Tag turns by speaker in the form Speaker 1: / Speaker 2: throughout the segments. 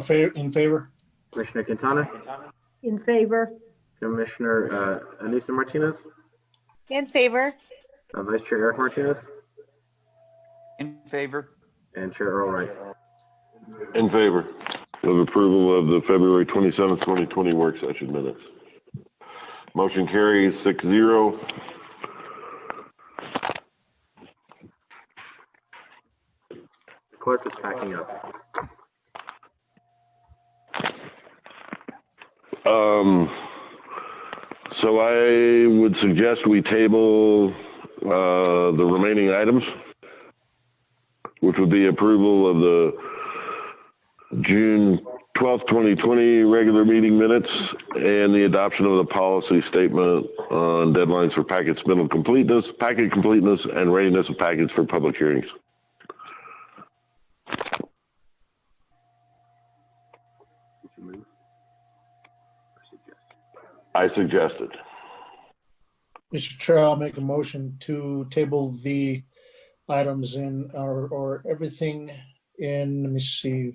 Speaker 1: A fa- In favor?
Speaker 2: Commissioner Quintana,
Speaker 3: In favor?
Speaker 2: Commissioner uh, Anissa Martinez,
Speaker 4: In favor.
Speaker 2: uh, Vice Chair Eric Martinez,
Speaker 5: In favor?
Speaker 2: and Chair Earl Wright.
Speaker 6: In favor of approval of the February 27th, 2020 work session minutes. Motion carries six zero.
Speaker 2: Clerk is packing up.
Speaker 6: Um, so I would suggest we table, uh, the remaining items, which would be approval of the June 12th, 2020 regular meeting minutes and the adoption of the policy statement on deadlines for packet submittal completeness, packet completeness and readiness of packets for public hearings. I suggested.
Speaker 1: Mr. Chair, I'll make a motion to table the items in, or, or everything in, let me see,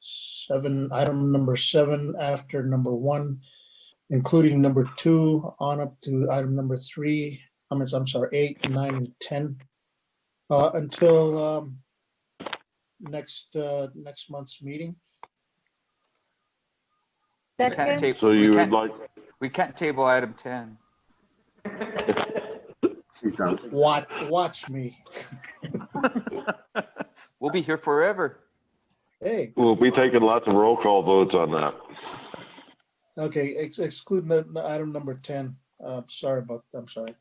Speaker 1: seven, item number seven after number one, including number two on up to item number three, I'm, I'm sorry, eight, nine, and 10. uh, Until um, next, uh, next month's meeting.
Speaker 5: We can't
Speaker 4: Second.
Speaker 5: ta-
Speaker 6: So
Speaker 5: we
Speaker 6: you would
Speaker 5: can't-
Speaker 6: like,
Speaker 5: We can't table item 10.
Speaker 2: She's done.
Speaker 1: Watch, watch me.
Speaker 5: We'll be here forever.
Speaker 1: Hey,
Speaker 6: we'll be taking lots of roll call votes on that.
Speaker 1: Okay, ex- excluding the the item number ten, uh, sorry about, I'm sorry.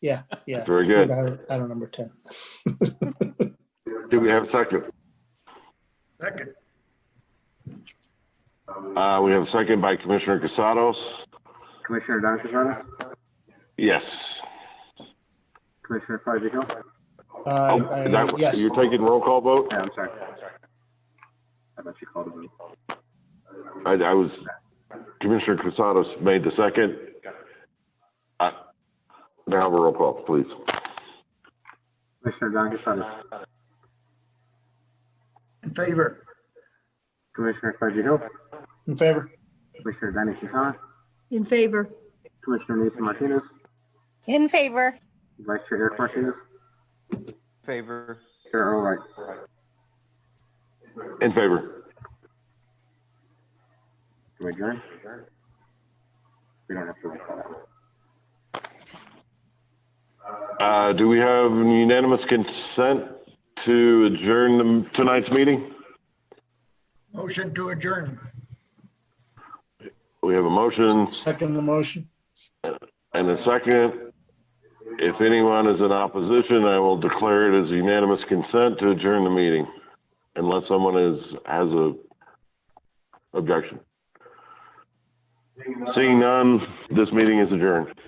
Speaker 1: Yeah, yeah.
Speaker 6: Very good.
Speaker 1: exclude Item item number ten.
Speaker 6: Do we have a second?
Speaker 7: Second.
Speaker 6: Uh, we have a second by Commissioner Casados.
Speaker 2: Commissioner Don Quijano,
Speaker 6: Yes.
Speaker 2: Commissioner Farley Hill.
Speaker 1: I,
Speaker 6: Oh, is
Speaker 1: I,
Speaker 6: that-
Speaker 1: yes,
Speaker 6: You're taking roll call vote?
Speaker 2: Yeah, I'm sorry. I thought you called me.
Speaker 6: I, I was, Commissioner Casados made the second. Uh, Now have a roll call, please.
Speaker 2: Commissioner Don Quijano,
Speaker 7: In favor?
Speaker 2: Commissioner Farley Hill,
Speaker 1: in favor,
Speaker 2: Commissioner Danny Quintana,
Speaker 3: In favor?
Speaker 2: Commissioner Anissa Martinez,
Speaker 4: In favor.
Speaker 2: Vice Chair Eric Martinez,
Speaker 5: Favor?
Speaker 2: Chair Earl Wright.
Speaker 6: In favor.
Speaker 2: Do we adjourn? We don't have to roll call that one.
Speaker 6: Uh, do we have unanimous consent to adjourn the- tonight's meeting?
Speaker 7: Motion to adjourn.
Speaker 6: We have a motion
Speaker 1: second the motion,
Speaker 6: and a second. If anyone is in opposition, I will declare it as unanimous consent to adjourn the meeting unless someone is, has a objection. Seeing none, this meeting is adjourned.